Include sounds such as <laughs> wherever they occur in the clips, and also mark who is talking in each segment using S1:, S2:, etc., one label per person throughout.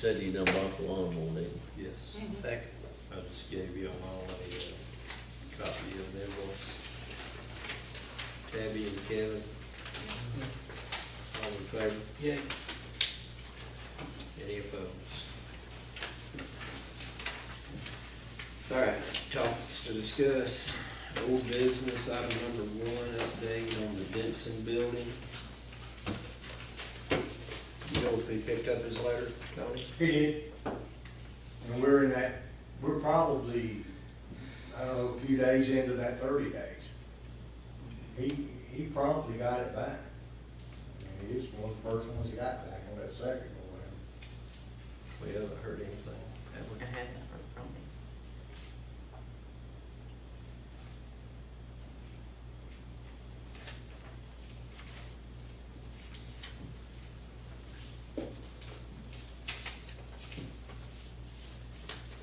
S1: Said he done bought the lawn one day.
S2: Yes,
S3: Mhm.
S2: second. I just gave you all a uh, copy of the invoice. Tabby and Kevin. All in favor?
S4: Yeah.
S2: Any opposed? All right, topics to discuss, old business, item number one, update on the Benson building. You know if he picked up his letter, Tony?
S5: He did. And we're in that, we're probably, I don't know, a few days into that thirty days. He, he promptly got it back. I mean, he's one of the first ones that got back on that second go round.
S2: We haven't heard anything. have we?
S3: I haven't heard from him.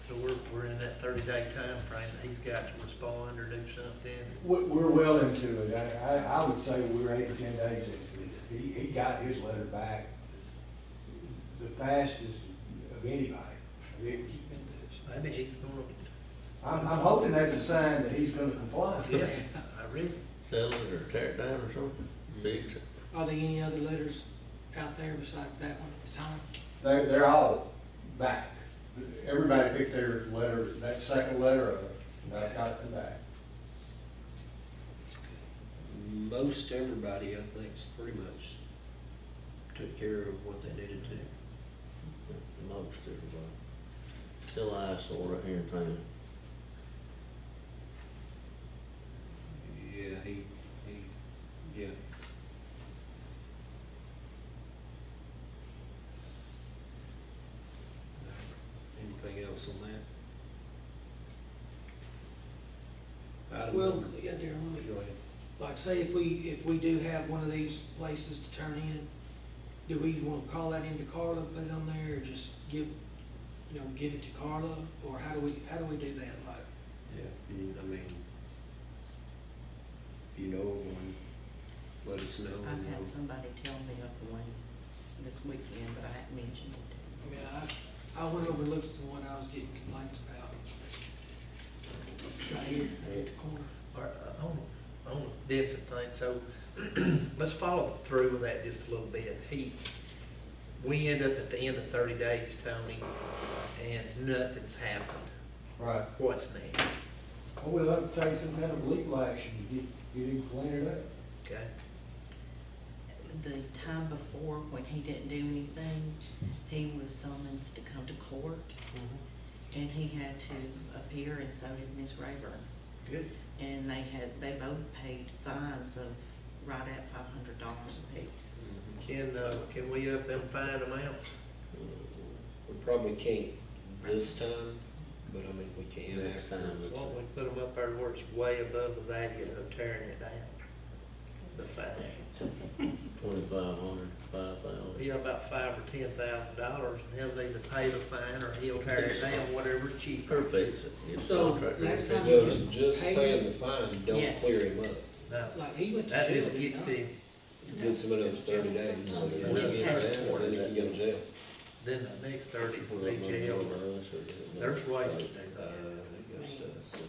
S4: So we're, we're in that thirty day timeframe that he's got to respond or do something.
S5: We're, we're well into it. I, I, I would say we're eight or ten days into it. He, he got his letter back the fastest of anybody. It was-
S4: Maybe he's gonna,
S5: I'm, I'm hoping that's a sign that he's gonna comply.
S4: yeah, I read,
S1: Sell it or tear it down or something, fix it.
S6: Are there any other letters out there besides that one at the time?
S5: They, they're all back. Everybody picked their letter, that second letter of it, and I've got them back.
S2: Most everybody, I think, pretty much took care of what they needed to.
S1: Most everybody. Still eyesore right here in town.
S2: Yeah, he, he, yeah. Anything else on that? Item
S6: Well,
S2: number-
S6: yeah, Darryl,
S2: Go ahead.
S6: like say if we, if we do have one of these places to turn in, do we want to call that into Carla, put it on there, or just give, you know, give it to Carla? Or how do we, how do we do that, like?
S2: Yeah, you- I mean, if you know of one, let us know.
S3: I've had somebody tell me of one this weekend, but I hadn't mentioned it.
S6: I mean, I, I went over and looked at the one I was getting complaints about. Right here, right at the corner.
S4: or, uh, on, on this and things, so <clears throat> let's follow through with that just a little bit. He, we end up at the end of thirty days, Tony, and nothing's happened.
S5: Right.
S4: What's next,
S5: Well, we'll have to take some kind of legal action to get, get him cleaned up.
S4: okay?
S3: The time before, when he didn't do anything, he was summoned to come to court, and he had to appear, and so did Ms. Rayburn.
S4: Good.
S3: And they had, they both paid fines of right at five hundred dollars apiece.
S4: Can, uh, can we up them fine amounts?
S1: Uh,
S2: We probably can't this time, but I mean, we can
S1: Next
S2: after.
S1: time. it's-
S4: Why don't we put them up there where it's way above the value of tearing it down? The fine,
S1: Twenty-five hundred, five thousand.
S4: yeah, about five or ten thousand dollars, and he'll either pay the fine or he'll tear it down, whatever's cheaper.
S1: Or fix it. Get a
S6: So,
S1: contractor to
S6: next
S1: fix
S6: time-
S1: it.
S2: Well, it's just paying the fine, don't
S3: Yes.
S2: clear him up.
S4: No,
S6: Like, he went to jail.
S4: that just
S6: did he
S4: gets
S6: not?
S4: him,
S2: Give some of those thirty days, so that when he gets down, then he can go to jail.
S4: then the next thirty
S1: Well,
S4: will
S1: that
S4: be
S1: money's
S4: jail.
S1: over us or is it not?
S4: There's ways to do
S2: Uh,
S4: that.
S2: it goes to us.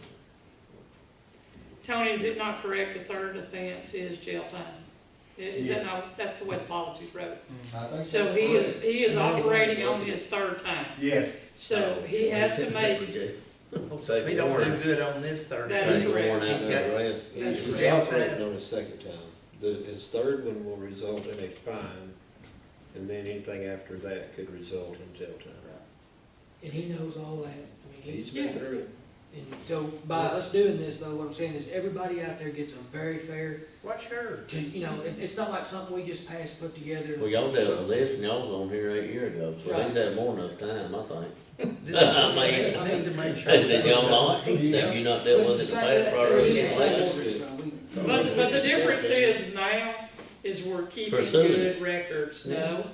S7: Tony, is it not correct, the third offense is jail time? Is that
S5: Yes.
S7: not, that's the way the policy wrote it?
S5: I think
S7: So
S5: that's
S7: he
S5: correct.
S7: is, he is operating on his third time,
S5: Yes,
S7: so he has to make,
S4: If he don't do good on this thirty
S7: That is
S4: days,
S7: correct. That's
S2: He's
S7: correct.
S2: operating on his second time. The, his third one will result in a fine, and then anything after that could result in jail time.
S6: And he knows all that. I mean,
S2: He's
S6: he,
S2: been through it.
S6: and so by us doing this though, what I'm saying is everybody out there gets a very fair,
S4: well,
S1: <laughs>
S4: sure.
S6: to, you know, it, it's not like something we just passed, put together.
S1: Well, y'all dealt with this and y'all was on here eight years ago, so he's had more than enough time, I think.
S4: This-
S1: I
S6: mean-
S4: I need to make
S1: <laughs>
S4: sure.
S1: Did y'all not? Have you not dealt with it in the past prior to this
S2: same-
S1: election?
S7: but, but the difference is now is we're keeping
S1: Pursuing it.
S7: good records, no?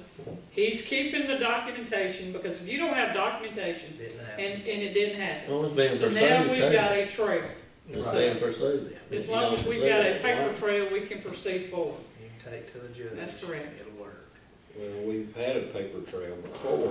S7: He's keeping the documentation, because if you don't have documentation,
S4: Didn't
S7: and,
S4: happen.
S7: and it didn't happen,
S1: Well, it's being
S7: so
S1: pursued,
S7: now we've got
S1: okay?
S7: a trail.
S1: It's being pursued.
S7: As
S1: If you
S7: long
S1: don't
S7: as we've
S1: pursue
S7: got a
S1: it,
S7: paper
S1: why?
S7: trail, we can proceed forward.
S4: You can take to the judge.
S7: That's correct.
S4: It'll work.
S2: Well, we've had a paper trail before,